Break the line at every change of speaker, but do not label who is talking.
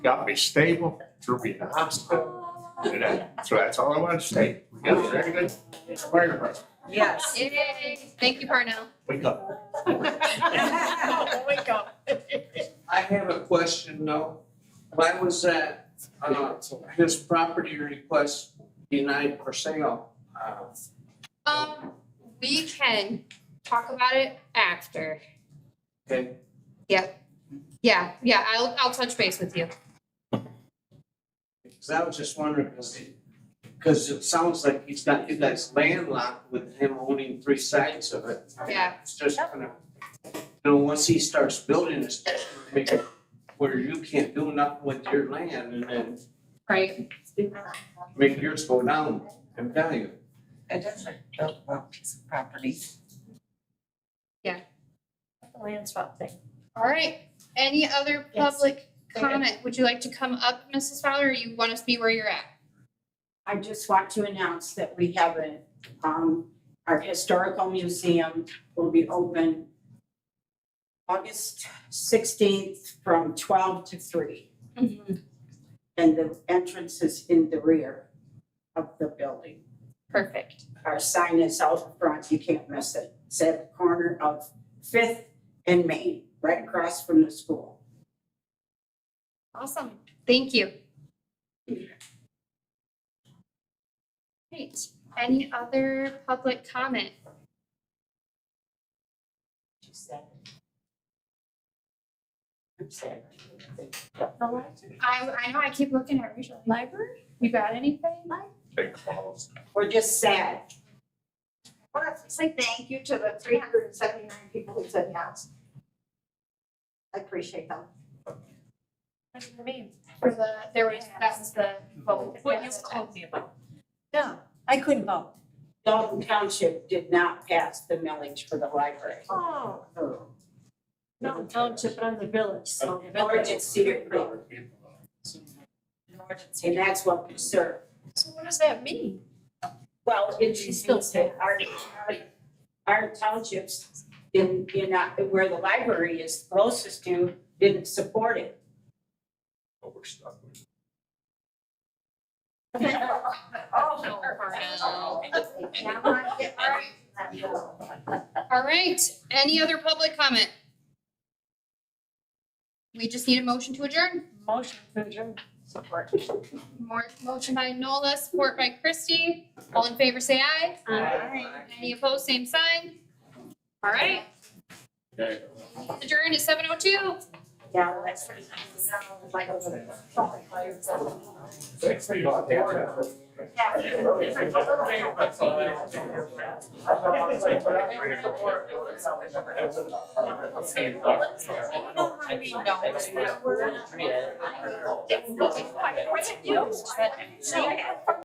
got me stable, threw me in the hospital. and that- So that's all I want to say. We got a very good fire department.
Yes.
Yay, thank you, Parnell.
Wake up.
Wake up.
I have a question though. Why was that, uh, his property request denied for sale? Uh,
Um, we can talk about it after.
Okay,
Yeah, yeah, I'll, I'll touch base with you.
because I was just wondering, because it, because it sounds like he's got, you guys landlocked with him owning three sides of it.
Yeah.
It's just kind of, you know, once he starts building this, make it where you can't do nothing with your land and then
Right.
make yours go down in value.
It is a built well piece of property.
Yeah.
The land swap thing.
All right, any other
Yes.
public
Go ahead.
comment? Would you like to come up, Mrs. Fowler, or you want us to be where you're at?
I just want to announce that we have a, um, our historical museum will be open August sixteenth from twelve to three,
Mm-hmm.
and the entrance is in the rear of the building.
Perfect.
Our sign is out front, you can't miss it. It's at the corner of Fifth and Main, right across from the school.
Awesome, thank you. Great, any other public comment?
She said. I'm sad.
I, I know I keep looking at Rachel. Library? You got anything?
Big falls.
We're just sad.
I want to say thank you to the three hundred and seventy-nine people who said yes. I appreciate them.
For the, there was, that's the vote.
What you told me about.
No, I couldn't vote.
Dalton Township did not pass the millage for the library.
Oh.
No, township, but I'm the village, so. the
Nor
village
did Cedar Creek, and that's what we serve.
So what does that mean?
Well, it
She still said-
our, our townships in, in, that- where the library is closest to, didn't support it.
But we're stuck with it.
Oh,
All
Now I get my-
right, any other public comment? We just need a motion to adjourn.
Motion to adjourn. Support.
More, motion by Nola, support by Christie. All in favor, say aye. Any opposed, same sign. All right,
Okay.
adjourned at seven oh two.
Yeah, that's.
Thanks for your help.
It's not quite what it used to be.